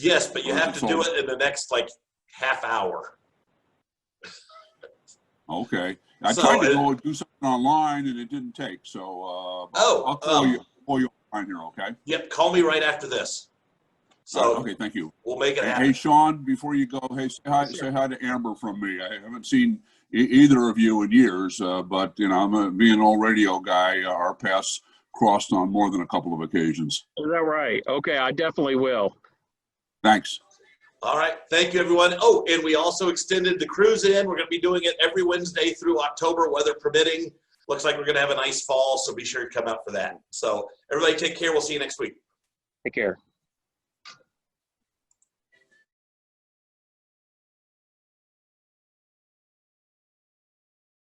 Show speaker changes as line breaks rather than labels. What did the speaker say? Yes, but you
Or is
have
it
to do
sold?
it in the next like half hour.
Okay. I
So
tried to
it-
go do something online and it didn't take, so, uh,
Oh,
I'll call
um,
you, call you on here, okay?
Yep, call me right after this.
Uh,
So
Okay, thank you.
we'll make it
Hey,
happen.
Sean, before you go, hey, say hi,
Sure.
say hi to Amber from me. I haven't seen e- either of you in years, uh, but, you know, I'm a, being an old radio guy, uh, our paths crossed on more than a couple of occasions.
Is that right? Okay, I definitely will.
Thanks.
All right, thank you, everyone. Oh, and we also extended the cruise in. We're gonna be doing it every Wednesday through October, weather permitting. Looks like we're gonna have a nice fall, so be sure to come out for that. So everybody take care. We'll see you next week.
Take care.